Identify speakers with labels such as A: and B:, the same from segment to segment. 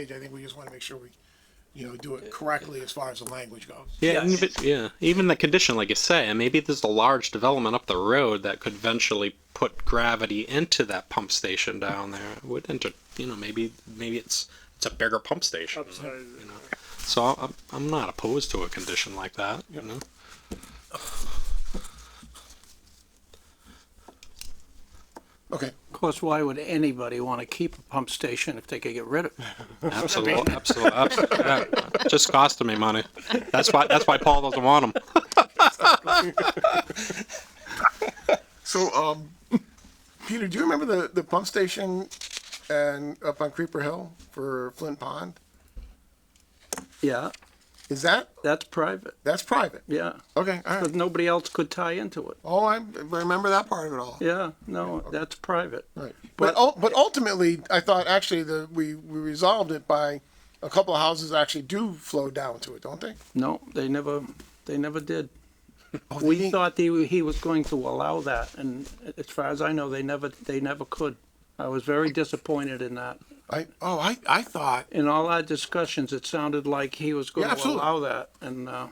A: page, I think we just wanna make sure we, you know, do it correctly as far as the language goes.
B: Yeah,
C: Yes.
B: even, yeah. Even the condition, like you say, and maybe there's a large development up the road that could eventually put gravity into that pump station down there. It would enter, you know, maybe maybe it's it's a bigger pump station. You know, so I- I'm I'm not opposed to a condition like that. You know.
A: Okay,
D: Of course, why would anybody want to keep a pump station if they could get rid of it?
B: Absolutely, absolutely, absolutely. Yeah. Just costing me money. That's why. That's why Paul doesn't want them.
A: so, um, Peter, do you remember the, the pump station and up on Creeper Hill for Flint Pond?
D: Yeah,
A: Is that,
D: that's private,
A: that's private?
D: yeah.
A: Okay, all
D: Because
A: right.
D: nobody else could tie into it.
A: Oh, I remember that part of it all.
D: Yeah, no, that's private.
A: Right. But, ul- but ultimately, I thought actually the, we, we resolved it by a couple of houses actually do flow down to it, don't they?
D: No, they never, they never did.
A: Oh,
D: We thought he, he was going to allow that, and as far as I know, they never, they never could. I was very disappointed in that.
A: I, oh, I, I thought,
D: In all our discussions, it sounded like he was going
A: Yeah,
D: to
A: absolutely.
D: allow that, and, uh,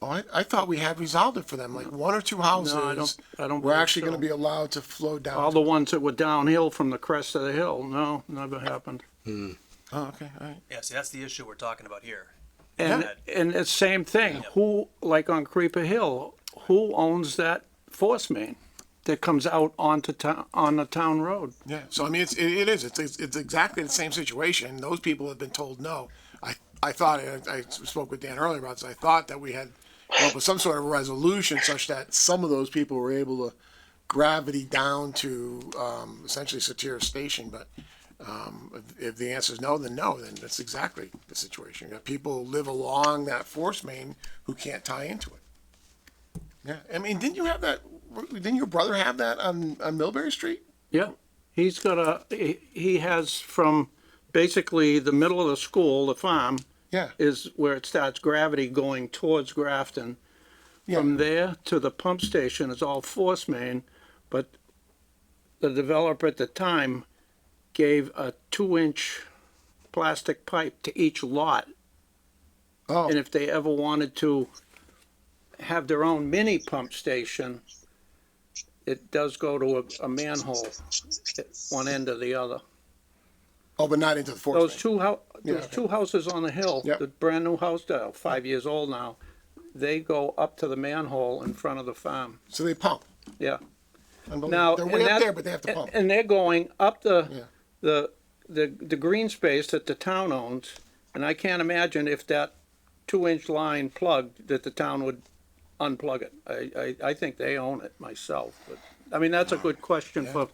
A: oh, I, I thought we had resolved it for them, like one or two houses.
D: No, I don't- I don't
A: Were
D: believe
A: actually gonna
D: so.
A: be allowed to flow down.
D: all
A: to-
D: the ones that were downhill from the crest of the hill, no, never happened.
A: Oh, okay, all right.
C: Yeah, see, that's the issue we're talking about here.
D: And, and it's same thing, who, like on Creeper Hill, who owns that force main that comes out onto town, on the town road?
A: Yeah, so I mean, it's, it, it is, it's, it's it's exactly the same situation. Those people have been told no. I, I thought, I, I spoke with Dan earlier about this, I thought that we had come up with some sort of resolution such that some of those people were able to gravity down to, um, essentially Satira Station, but, um, if, if the answer is no, then no, then that's exactly the situation. You got people who live along that force main who can't tie into it. Yeah, I mean, didn't you have that, didn't your brother have that on, on Millbury Street?
D: Yeah, he's got a, he, he has from basically the middle of the school, the farm,
A: Yeah.
D: is where it starts gravity going towards Grafton. From there to the pump station is all force main, but the developer at the time gave a two-inch plastic pipe to each lot
A: Oh.
D: And if they ever wanted to have their own mini pump station, it does go to a, a manhole at one end or the other.
A: Oh, but not into the force
D: Those
A: main.
D: two hou-
A: Yeah,
D: those
A: okay.
D: two houses on the hill,
A: Yep.
D: the brand new house, that are five years old now, they go up to the manhole in front of the farm,
A: So they pump.
D: yeah.
A: Unbelievable.
D: Now.
A: They're
D: and
A: way up
D: that-
A: there, but they have to
D: and-
A: pump.
D: And they're going up
A: Yeah.
D: the, the, the, the green space that the town owns, and I can't imagine if that two-inch line plugged, that the town would unplug it. I, I, I think they own it myself, but, I mean, that's a good question for,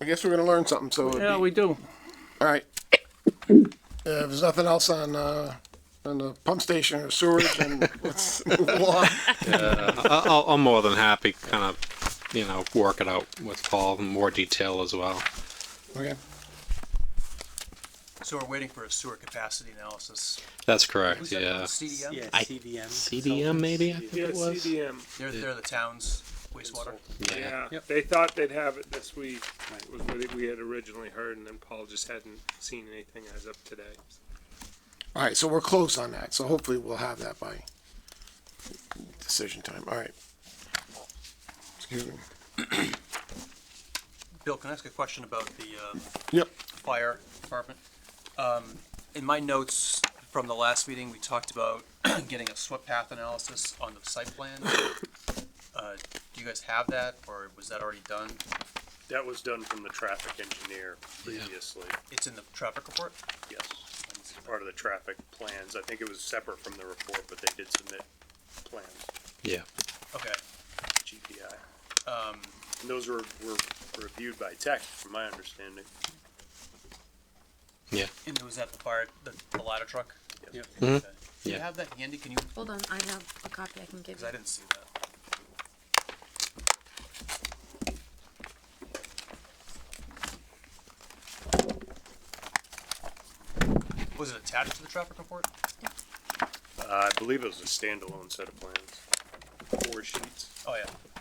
A: I guess we're gonna learn something, so. it'd
D: yeah,
A: be-
D: we do.
A: All right. Uh, If there's nothing else on, uh, on the pump station or sewage, then let's move along.
B: I- I'll, I'm more than happy, kind of, you know, work it out with Paul in more detail as well.
A: Okay.
C: So we're waiting for a sewer capacity analysis.
B: That's correct.
C: Who's that
B: Yeah.
C: called? CDM?
E: Yeah,
B: I-
E: CDM.
B: CDM maybe I think
F: Yeah,
B: it was.
F: CDM.
C: They're, they're the town's wastewater.
B: Yeah.
F: Yeah, they thought they'd have it this week, was what we had originally heard, and then Paul just hadn't seen anything as of today.
A: All right, so we're close on that, so hopefully we'll have that by decision time. All right. Excuse me.
C: Bill, can I ask a question about the, uh,
A: Yep.
C: fire department? Um, in my notes from the last meeting, we talked about getting a SWIP path analysis on the site plan. Uh, do you guys have that, or was that already done?
F: That was done from the traffic engineer previously,
C: It's in the traffic report?
F: yes. It's part of the traffic plans. I think it was separate from the report, but they did submit plans,
B: Yeah.
C: Okay,
F: GPI. And those were, were reviewed by tech, from my understanding.
C: and was that the fire, the, the ladder truck? Mm-hmm.
F: Yep.
C: Okay. Do you
B: Yeah.
C: have that handy? Can you,
G: Hold on, I have a copy I can give
C: cause I
G: you.
C: didn't see that. Was it attached to the traffic report?
F: Uh, I believe it was a standalone set of plans, four sheets.
C: Oh, yeah.